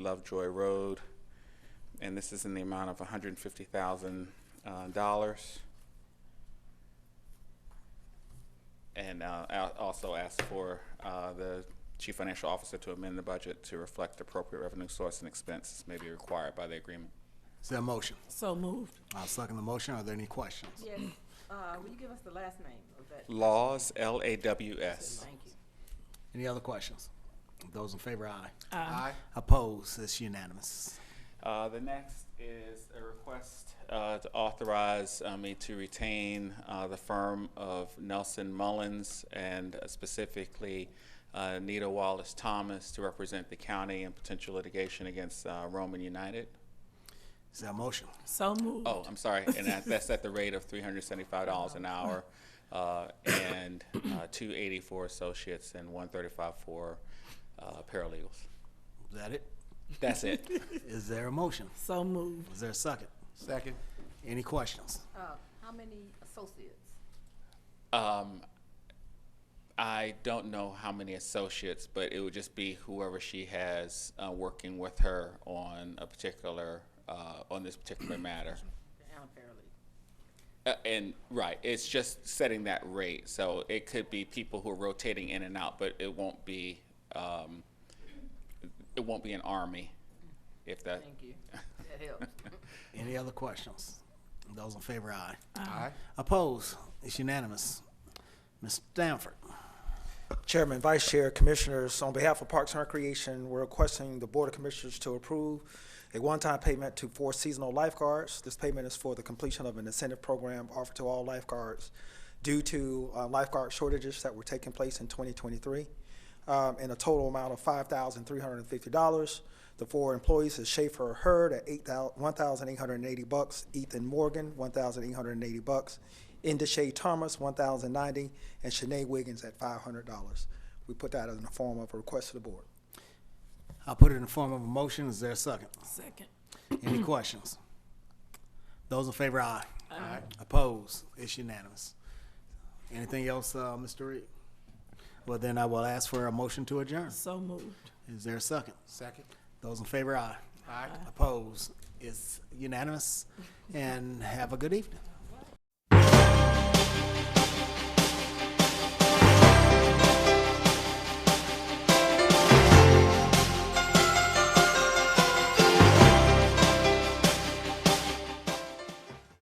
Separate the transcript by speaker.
Speaker 1: Lovejoy Road. And this is in the amount of uh, $150,000. And uh, I also ask for uh, the chief financial officer to amend the budget to reflect the appropriate revenue source and expenses may be required by the agreement.
Speaker 2: Is there a motion?
Speaker 3: So moved.
Speaker 2: I'll second the motion. Are there any questions?
Speaker 4: Yes, uh, will you give us the last name of that?
Speaker 1: Laws, L-A-W-S.
Speaker 4: Thank you.
Speaker 2: Any other questions? Those in favor, aye.
Speaker 3: Aye.
Speaker 2: Opposed, it's unanimous.
Speaker 1: Uh, The next is a request uh, to authorize uh, me to retain uh, the firm of Nelson Mullins and uh, specifically uh, Nita Wallace Thomas to represent the county in potential litigation against uh, Roman United.
Speaker 2: Is there a motion?
Speaker 3: So moved.
Speaker 1: Oh, I'm sorry, and that- that's at the rate of $375 an hour uh, and uh, 280 for associates and 135 for uh, paralegals.
Speaker 2: Is that it?
Speaker 1: That's it.
Speaker 2: Is there a motion?
Speaker 3: So moved.
Speaker 2: Is there a second?
Speaker 5: Second.
Speaker 2: Any questions?
Speaker 4: Uh, how many associates?
Speaker 1: Um, I don't know how many associates, but it would just be whoever she has uh, working with her on a particular, uh, on this particular matter.
Speaker 4: And a paralegal.
Speaker 1: Uh, and right, it's just setting that rate. So it could be people who are rotating in and out, but it won't be, um, it won't be an army, if that.
Speaker 4: Thank you. That helps.
Speaker 2: Any other questions? Those in favor, aye.
Speaker 5: Aye.
Speaker 2: Opposed, it's unanimous. Ms. Stanford,
Speaker 6: Chairman, Vice Chair, Commissioners, on behalf of Parks and Recreation, we're requesting the Board of Commissioners to approve a one-time payment to four seasonal lifeguards. This payment is for the completion of an incentive program offered to all lifeguards due to uh, lifeguard shortages that were taking place in 2023, um, in a total amount of $5,350. The four employees is Schaefer Hurd at eight thou- 1,880 bucks, Ethan Morgan, 1,880 bucks, Indeshay Thomas, one thousand ninety, and Shanae Wiggins at five hundred dollars. We put that in the form of a request to the board.
Speaker 2: I'll put it in the form of a motion. Is there a second?
Speaker 3: Second.
Speaker 2: Any questions? Those in favor, aye. Aye. Opposed? It's unanimous. Anything else, uh, Mr. Reed? Well, then I will ask for a motion to adjourn.
Speaker 3: So moved.
Speaker 2: Is there a second?
Speaker 5: Second.
Speaker 2: Those in favor, aye.
Speaker 5: Aye.
Speaker 2: Opposed? It's unanimous. And have a good evening.